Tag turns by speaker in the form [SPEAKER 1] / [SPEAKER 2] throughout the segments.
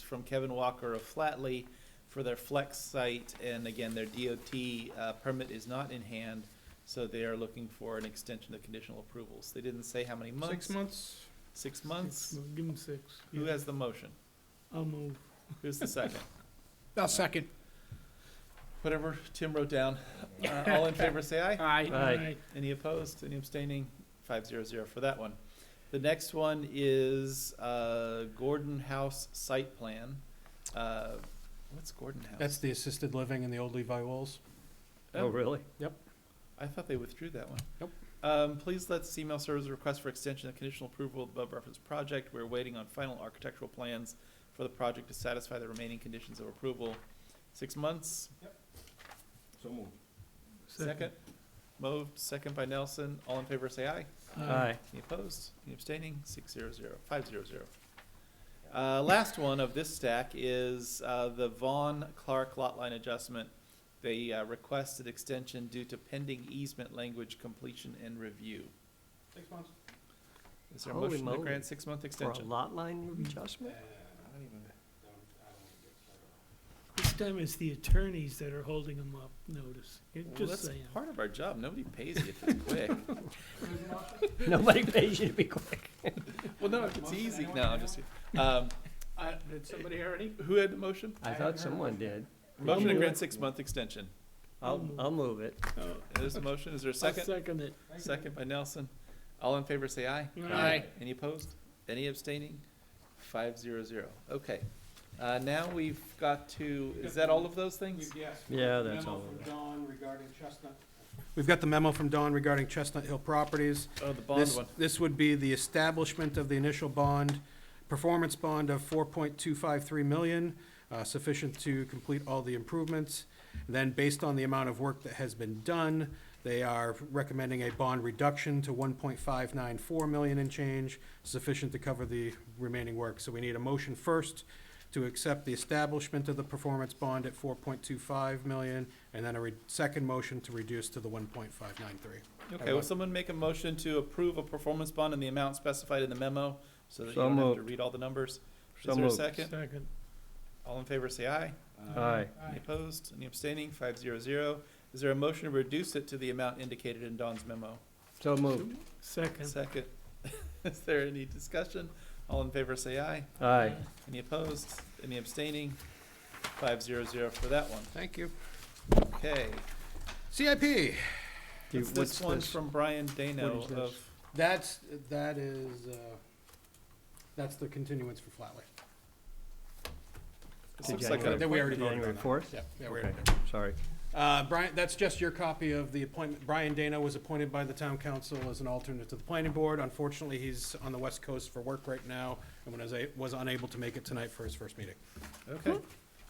[SPEAKER 1] from Kevin Walker of Flatley for their flex site, and again, their DOT uh, permit is not in hand, so they are looking for an extension of conditional approvals. They didn't say how many months.
[SPEAKER 2] Six months.
[SPEAKER 1] Six months.
[SPEAKER 3] Well, Give them six.
[SPEAKER 1] Who
[SPEAKER 3] Yeah.
[SPEAKER 1] has the motion?
[SPEAKER 3] I'll move.
[SPEAKER 1] Who's the second?
[SPEAKER 4] I'll second.
[SPEAKER 1] Whatever Tim wrote down. Uh, All in favor, say aye.
[SPEAKER 2] Aye.
[SPEAKER 3] Aye.
[SPEAKER 1] Any opposed? Any abstaining? Five zero zero for that one. The next one is uh, Gordon House site plan. Uh, What's Gordon House?
[SPEAKER 4] That's the assisted living in the old Levi Walls.
[SPEAKER 1] Oh,
[SPEAKER 2] really?
[SPEAKER 1] I thought they withdrew that one.
[SPEAKER 4] Nope.
[SPEAKER 1] Um, please let CML Services request for extension of conditional approval of above referenced project. We're waiting on final architectural plans for the project to satisfy the remaining conditions of approval. Six months,
[SPEAKER 5] So moved.
[SPEAKER 1] second. Moved, second by Nelson. All in favor, say aye.
[SPEAKER 2] Aye.
[SPEAKER 1] Any opposed? Any abstaining? Six zero zero, five zero zero. Uh, last one of this stack is, uh, the Vaughn Clark lot line adjustment. They, uh, requested extension due to pending easement language completion and review.
[SPEAKER 5] Six months.
[SPEAKER 1] Is there a
[SPEAKER 2] Holy
[SPEAKER 1] motion to
[SPEAKER 2] moly.
[SPEAKER 1] grant six-month
[SPEAKER 2] For a
[SPEAKER 1] extension?
[SPEAKER 2] lot line
[SPEAKER 5] Uh,
[SPEAKER 2] adjustment?
[SPEAKER 3] This time it's the attorneys that are holding them up, notice. You're
[SPEAKER 1] Well,
[SPEAKER 3] Just
[SPEAKER 1] that's
[SPEAKER 3] saying.
[SPEAKER 1] part of our job. Nobody pays you if it's quick.
[SPEAKER 2] Nobody pays you to be quick.
[SPEAKER 1] Well, no, if it's easy, no, I'm just, um, I-
[SPEAKER 3] Did somebody already?
[SPEAKER 1] who had the motion?
[SPEAKER 2] I thought someone did.
[SPEAKER 1] Motion to
[SPEAKER 3] move
[SPEAKER 1] grant
[SPEAKER 3] it.
[SPEAKER 1] six-month extension.
[SPEAKER 2] I'll, I'll move it.
[SPEAKER 1] There's a motion. Is there a
[SPEAKER 3] I'll
[SPEAKER 1] second?
[SPEAKER 3] second it.
[SPEAKER 1] Second by Nelson. All in favor, say aye.
[SPEAKER 3] Aye.
[SPEAKER 1] Any opposed? Any abstaining? Five zero zero. Okay. Uh, now we've got to, is that all of those things?
[SPEAKER 5] Yes.
[SPEAKER 2] Yeah, that's all.
[SPEAKER 5] Memo from Don regarding Chestnut.
[SPEAKER 4] We've got the memo from Don regarding Chestnut Hill Properties.
[SPEAKER 1] Oh, the bond
[SPEAKER 4] This,
[SPEAKER 1] one.
[SPEAKER 4] this would be the establishment of the initial bond, performance bond of four point two five three million, uh, sufficient to complete all the improvements. Then, based on the amount of work that has been done, they are recommending a bond reduction to one point five nine four million and change, sufficient to cover the remaining work. So we need a motion first to accept the establishment of the performance bond at four point two five million, and then a re- second motion to reduce to the one point five nine three.
[SPEAKER 1] Okay, will someone make a motion to approve a performance bond in the amount specified in the memo? So that you
[SPEAKER 2] So
[SPEAKER 1] don't have to
[SPEAKER 2] moved.
[SPEAKER 1] read all the numbers.
[SPEAKER 2] So
[SPEAKER 1] Is there a
[SPEAKER 2] moved.
[SPEAKER 1] second?
[SPEAKER 3] Second.
[SPEAKER 1] All in favor, say aye.
[SPEAKER 2] Aye.
[SPEAKER 1] Any opposed? Any abstaining? Five zero zero. Is there a motion to reduce it to the amount indicated in Don's memo?
[SPEAKER 2] So moved.
[SPEAKER 3] Second.
[SPEAKER 1] Second. Is there any discussion? All in favor, say aye.
[SPEAKER 2] Aye.
[SPEAKER 1] Any opposed? Any abstaining? Five zero zero for that one.
[SPEAKER 4] Thank you.
[SPEAKER 1] Okay.
[SPEAKER 4] CIP.
[SPEAKER 2] Do-
[SPEAKER 1] What's
[SPEAKER 2] what's
[SPEAKER 1] this one
[SPEAKER 2] this?
[SPEAKER 1] from Brian Dano
[SPEAKER 2] What is this?
[SPEAKER 1] of,
[SPEAKER 4] That's, that is, uh, that's the continuance for Flatley.
[SPEAKER 1] this
[SPEAKER 2] To
[SPEAKER 1] looks like
[SPEAKER 2] January.
[SPEAKER 1] an
[SPEAKER 4] That we already
[SPEAKER 1] appointment.
[SPEAKER 4] voted
[SPEAKER 2] January
[SPEAKER 4] on that.
[SPEAKER 2] fourth?
[SPEAKER 4] Yep, yeah, we
[SPEAKER 2] Okay.
[SPEAKER 4] already did.
[SPEAKER 2] Sorry.
[SPEAKER 4] Uh, Brian, that's just your copy of the appointment. Brian Dana was appointed by the town council as an alternate to the planning board. Unfortunately, he's on the west coast for work right now and was, a- was unable to make it tonight for his first meeting.
[SPEAKER 1] Okay.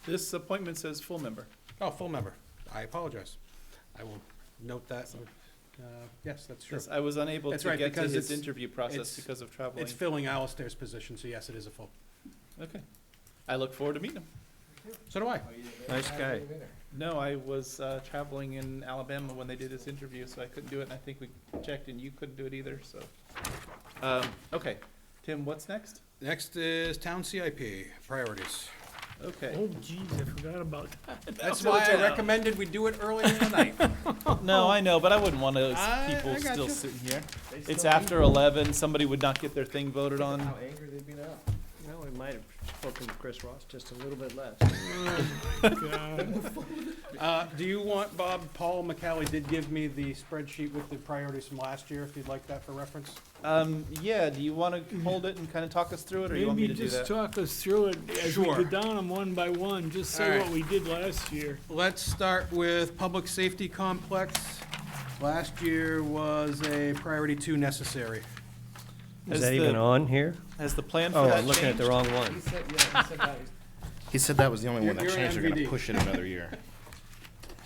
[SPEAKER 1] This appointment says full member.
[SPEAKER 4] Oh, full member. I apologize. I will note that. Uh, Yes, that's true.
[SPEAKER 1] Yes, I was unable
[SPEAKER 4] That's
[SPEAKER 1] to
[SPEAKER 4] right,
[SPEAKER 1] get to
[SPEAKER 4] because
[SPEAKER 1] his
[SPEAKER 4] it's-
[SPEAKER 1] interview process
[SPEAKER 4] it's-
[SPEAKER 1] because of traveling.
[SPEAKER 4] It's filling Alistair's position, so yes, it is a full.
[SPEAKER 1] Okay. I look forward to meeting him.
[SPEAKER 4] So do I.
[SPEAKER 2] Nice guy.
[SPEAKER 1] No, I was uh, traveling in Alabama when they did this interview, so I couldn't do it, and I think we checked and you couldn't do it either, so. Um, Okay, Tim, what's next?
[SPEAKER 4] Next is town CIP priorities.
[SPEAKER 1] Okay.
[SPEAKER 3] Oh jeez, I forgot about that.
[SPEAKER 4] That's
[SPEAKER 1] Go
[SPEAKER 4] why I
[SPEAKER 1] down.
[SPEAKER 4] recommended we do it earlier in the night.
[SPEAKER 1] No, I know, but I wouldn't want those
[SPEAKER 4] Oh, I- I
[SPEAKER 1] people
[SPEAKER 4] got
[SPEAKER 1] still
[SPEAKER 4] you.
[SPEAKER 1] sitting here. It's after eleven, somebody would not get their thing voted on.
[SPEAKER 5] How angry they'd be now.
[SPEAKER 2] No, we might have spoken to Chris Ross just a little bit less.
[SPEAKER 3] God.
[SPEAKER 4] Uh, do you want, Bob, Paul McCallie did give me the spreadsheet with the priorities from last year, if you'd like that for reference.
[SPEAKER 1] Um, yeah, do you wanna hold it and kinda talk us through it, or you want me
[SPEAKER 3] Maybe
[SPEAKER 1] to do
[SPEAKER 3] just
[SPEAKER 1] that?
[SPEAKER 3] talk us through it as we go
[SPEAKER 4] Sure.
[SPEAKER 3] down them one by one, just
[SPEAKER 4] All
[SPEAKER 3] say
[SPEAKER 4] right.
[SPEAKER 3] what we did last year.
[SPEAKER 4] Let's start with public safety complex. Last year was a priority two necessary.
[SPEAKER 2] Is
[SPEAKER 1] Has
[SPEAKER 2] that even
[SPEAKER 1] the-
[SPEAKER 2] on here?
[SPEAKER 1] Has the plan for
[SPEAKER 2] Oh,
[SPEAKER 1] that
[SPEAKER 2] I'm looking at the
[SPEAKER 1] changed?
[SPEAKER 2] wrong one.
[SPEAKER 5] said, yeah, he said that.
[SPEAKER 6] He said that was the only
[SPEAKER 4] You're-
[SPEAKER 6] one that
[SPEAKER 4] you're an
[SPEAKER 6] changed. They're gonna
[SPEAKER 4] MVD.
[SPEAKER 6] push it another year.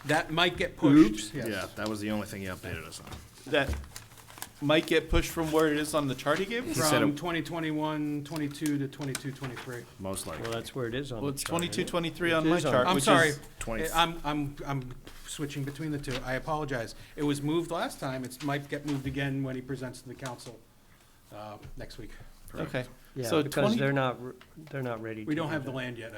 [SPEAKER 4] That might get pushed. yes.
[SPEAKER 6] Yeah, that was the only thing he updated us on.
[SPEAKER 1] That might get pushed from where it is on the chart he gave us?
[SPEAKER 6] He said
[SPEAKER 4] From
[SPEAKER 6] it-
[SPEAKER 4] 2021, 22 to 22, 23.
[SPEAKER 6] Most
[SPEAKER 2] Well,
[SPEAKER 6] likely.
[SPEAKER 2] that's where it is on.
[SPEAKER 1] Well,
[SPEAKER 2] the
[SPEAKER 1] it's
[SPEAKER 2] chart, isn't
[SPEAKER 1] twenty-two,
[SPEAKER 2] it?
[SPEAKER 1] twenty-three
[SPEAKER 2] It
[SPEAKER 1] on my
[SPEAKER 2] is on-
[SPEAKER 1] chart,
[SPEAKER 4] I'm
[SPEAKER 1] which
[SPEAKER 4] sorry.
[SPEAKER 1] is-
[SPEAKER 6] Twenty.
[SPEAKER 4] Eh, I'm, I'm, I'm switching between the two. I apologize. It was moved last time. It might get moved again when he presents to the council uh, next week.
[SPEAKER 1] Okay,
[SPEAKER 7] So
[SPEAKER 4] Yeah, because
[SPEAKER 7] 20
[SPEAKER 4] they're not, r- they're not ready to.
[SPEAKER 2] We don't
[SPEAKER 4] do
[SPEAKER 2] have the
[SPEAKER 4] that.
[SPEAKER 2] land yet,